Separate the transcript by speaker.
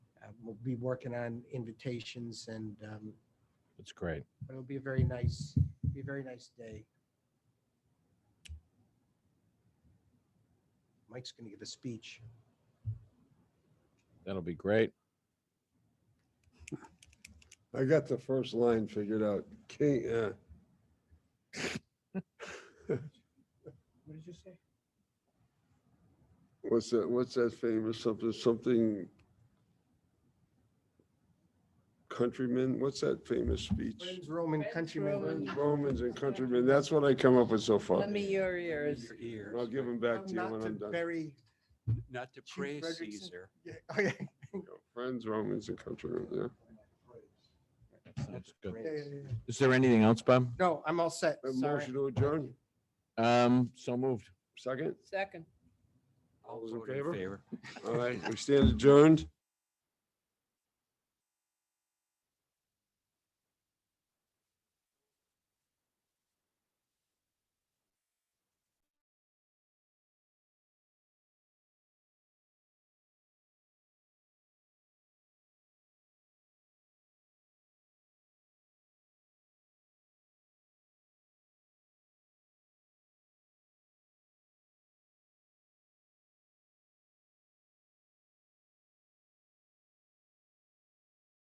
Speaker 1: Um, we'll be working on invitations and, um,
Speaker 2: That's great.
Speaker 1: but it'll be a very nice, be a very nice day. Mike's going to give a speech.
Speaker 2: That'll be great.
Speaker 3: I got the first line figured out. King, uh,
Speaker 1: What did you say?
Speaker 3: what's that, what's that famous something, something? Countrymen, what's that famous speech?
Speaker 1: Friends, Roman countrymen.
Speaker 4: Roman.
Speaker 3: Friends, Romans and countrymen, that's what I come up with so far.
Speaker 4: Let me your ears.
Speaker 5: Your ears.
Speaker 3: I'll give them back to you
Speaker 1: Not
Speaker 3: when
Speaker 1: to
Speaker 3: I'm done.
Speaker 1: bury-
Speaker 5: Not to
Speaker 1: Chief
Speaker 5: praise
Speaker 1: Fredrickson.
Speaker 5: Caesar.
Speaker 1: yeah, oh, yeah,
Speaker 3: Friends, Romans and countrymen, yeah.
Speaker 2: Sounds good.
Speaker 1: yeah, yeah, yeah.
Speaker 2: Is there anything else, Bob?
Speaker 1: No, I'm all set.
Speaker 3: A
Speaker 1: Sorry.
Speaker 3: Motion to adjourn,
Speaker 2: Um, so moved.
Speaker 3: second?
Speaker 4: Second.
Speaker 3: All
Speaker 5: I'll
Speaker 3: those in
Speaker 5: vote in
Speaker 3: favor?
Speaker 5: favor.
Speaker 3: All right, we stand adjourned.